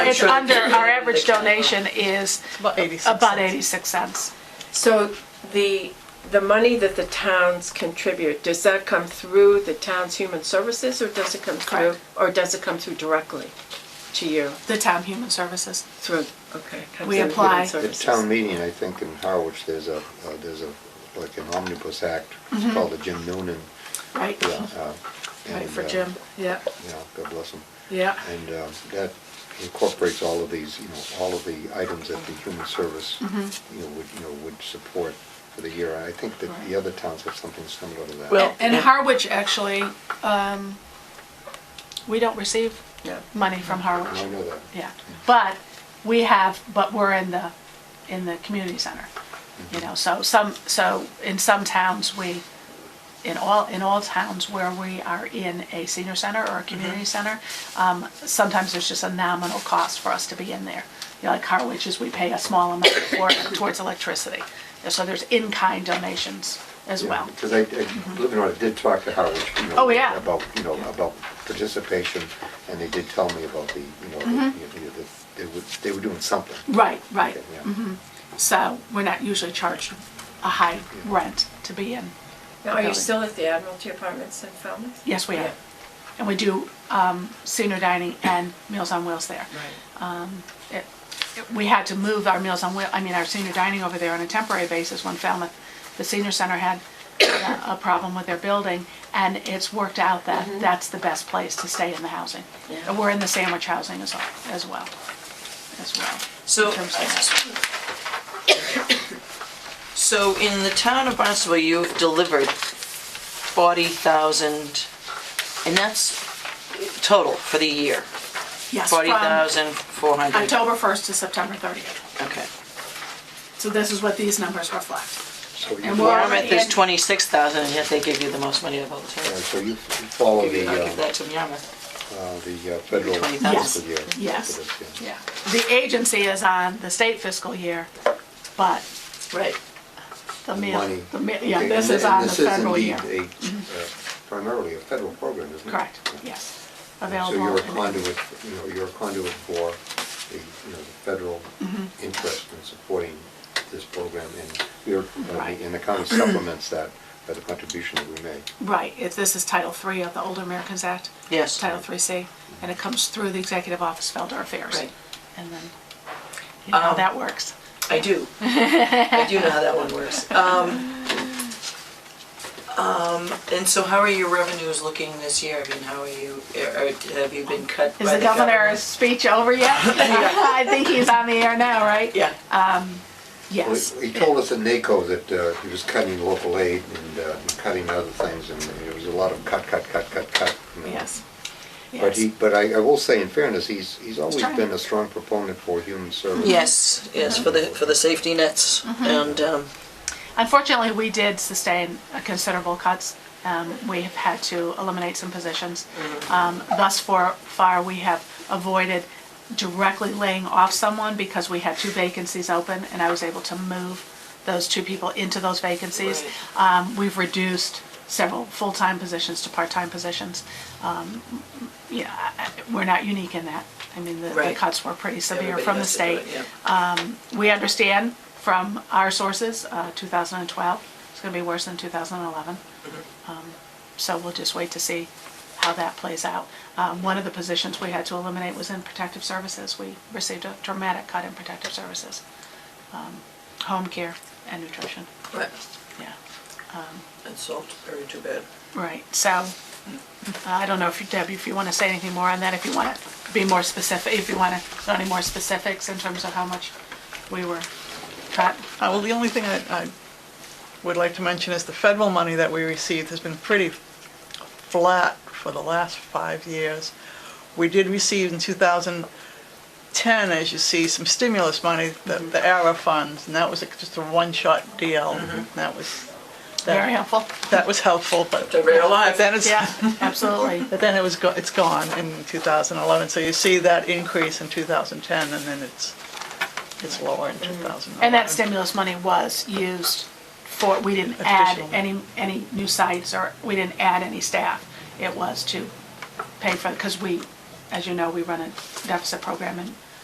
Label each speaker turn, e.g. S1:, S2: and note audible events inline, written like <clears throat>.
S1: it's
S2: sure that
S1: under,
S2: they're
S1: our
S2: doing
S1: average
S2: what they can.
S1: donation is
S3: About 86
S1: about
S3: cents.
S1: 86 cents.
S2: So the, the money that the towns contribute, does that come through the town's human services or does it come through?
S1: Correct.
S2: Or does it come through directly to you?
S1: The town human services.
S2: Through, okay. comes
S1: We
S2: through human
S1: apply. At
S4: At
S2: services.
S4: town meeting, I think in Harwich, there's a, uh, there's a, like an omnibus act,
S1: Mm-hmm.
S4: it's called the Jim Noonan.
S1: Right.
S4: yeah, uh,
S1: Right
S4: and,
S1: for
S4: uh,
S1: Jim. Yeah.
S4: Yeah, God bless him.
S1: Yeah.
S4: And uh, that incorporates all of these, you know, all of the items that the human service, you
S1: Mm-hmm.
S4: know, would, you know, would support for the year. I think that the other towns have something similar to that.
S3: Well-
S1: And
S3: Yeah.
S1: Harwich, actually, um, we don't receive
S2: Yeah.
S1: money from
S4: And I
S1: Harwich.
S4: know that.
S1: Yeah, but we have, but we're in the, in the community center,
S4: Mm-hmm.
S1: you know, so some, so in some towns, we, in all, in all towns where we are in a senior center or a
S4: Mm-hmm.
S1: community center, um, sometimes there's just a nominal cost for us to be in there. You know, like Harwich is, we pay a small amount for, towards electricity, so there's in-kind donations as
S4: Yeah,
S1: well.
S4: Because I, I- believe it or not, I did talk to Howard, you know.
S1: Oh, yeah.
S4: About, you know, about participation, and they did tell me about the, you know, the- you know, the- they were, they were doing something.
S1: Right, Mm-hmm. right, Mm-hmm.
S4: Yeah.
S1: so we're not usually charged a high rent to be in.
S2: Now, are you still at the Admiralty Apartments in Falmouth?
S1: Yes, we
S2: Yeah.
S1: are. And we do um, senior dining and Meals on Wheels there. Um, It- it- We had to move our Meals on Wheels, I mean, our senior dining over there on a temporary basis when Falmouth, the senior center had uh, a- a problem with their building, and it's worked out that that's the best place to stay in the housing.
S2: Mm-hmm. Yeah.
S1: And we're in the sandwich housing as well, as well, as well.
S3: So,
S1: in terms of that.
S3: So in the town of Barnstable, you've delivered 40,000, and that's total for the year,
S1: Yes, from
S3: 40,400.
S1: October 1st to September 30th.
S3: Okay.
S1: So this is what these numbers reflect.
S4: So you
S1: And we're
S4: follow,
S3: Yarmouth is
S1: in-
S3: 26,000, and yet they give you the most money of all the
S4: uh,
S3: towns.
S4: so you follow
S3: I'll
S4: the,
S3: give
S4: uh,
S3: that to Yarmouth.
S4: uh, the uh, federal
S3: Yes.
S4: fiscal year.
S1: Yes.
S4: for this,
S1: Yeah, the agency is on the state fiscal year, but
S3: Right.
S1: the meal,
S4: Money.
S1: the meal, yeah,
S4: Okay,
S1: this
S4: and-
S1: is
S4: and
S1: on the
S4: this
S1: federal year. Mm-hmm.
S4: indeed a, uh, Primarily a federal program, isn't it?
S1: Correct, yes,
S4: So
S1: available.
S4: you're a
S1: in-
S4: conduit, you know, you're a conduit for the, you know, the federal
S1: Mm-hmm.
S4: interest in supporting this program, and you're,
S1: Right.
S4: and
S1: <clears throat>
S4: the county supplements that by the contribution that we make.
S1: Right, if this is Title III of the Older Americans Act.
S3: Yes.
S1: Title III C, and it comes through the Executive Office of Elder Affairs.
S3: Right.
S1: And then, you know how
S3: Um,
S1: that works.
S3: I <laughs> do. I do know how that one works. Um, um, And so how are your revenues looking this year? I mean, how are you, or have you been cut by
S1: Is the governor's speech over
S3: <laughs>
S1: yet? <laughs> I think he's on the air now, right?
S3: Yeah.
S4: Well,
S1: Yes.
S4: He he told us at NACO that uh, he was cutting local aid and uh, cutting other things, and there was a lot of cut, cut, cut, cut, cut. you know.
S1: Yes.
S4: But he,
S1: Yes.
S4: but I I will say, in fairness, he's, he's always
S1: trying.
S4: been a strong proponent for human service.
S3: Yes, yes, for the, for the safety nets
S1: Mm-hmm.
S3: and, um,
S1: Unfortunately, we did sustain a considerable cuts. Um, We have had to eliminate some positions.
S3: Mm-hmm.
S1: Um, Thus far, far, we have avoided directly laying off someone because we had two vacancies open, and I was able to move those two people into those vacancies. Um, We've reduced several full-time positions to part-time positions. Um, You know, I- I- we're not unique in that. I mean, the- the
S3: Right.
S1: cuts were pretty severe
S3: everybody
S1: from the
S3: has to do
S1: state. Uh,
S3: it, yeah.
S1: We understand from our sources, uh, 2012, it's going to be worse than 2011. Um, So we'll just wait to see how that plays out. Um, One of the positions we had to eliminate was in protective services. We received a dramatic cut in protective services, um, home care and nutrition.
S3: Right,
S1: Yeah,
S3: and salt, very too bad.
S1: right. So I don't know if you, Deb, if you want to say anything more on that, if you want to be more specific, if you want to know any more specifics in terms of how much we were cut.
S3: Right.
S5: Uh, Well, the only thing I I would like to mention is the federal money that we received has been pretty flat for the last five years. We did receive in 2010, as you see, some stimulus money, the
S1: Mm-hmm.
S5: the ARA funds, and that was a- just a one-shot deal. That was, that-
S1: Mm-hmm. Very helpful.
S5: that was helpful, but
S3: They're very alive.
S5: but then it's,
S1: Yeah, absolutely.
S5: but then it was, go- it's gone in 2011. So you see that increase in 2010, and then it's, it's lower in 2011.
S1: Mm-hmm. And that stimulus money was used for, we didn't add
S5: Additional.
S1: any, any new sites or we didn't add any staff. It was to pay for, because we, as you know, we run a deficit program and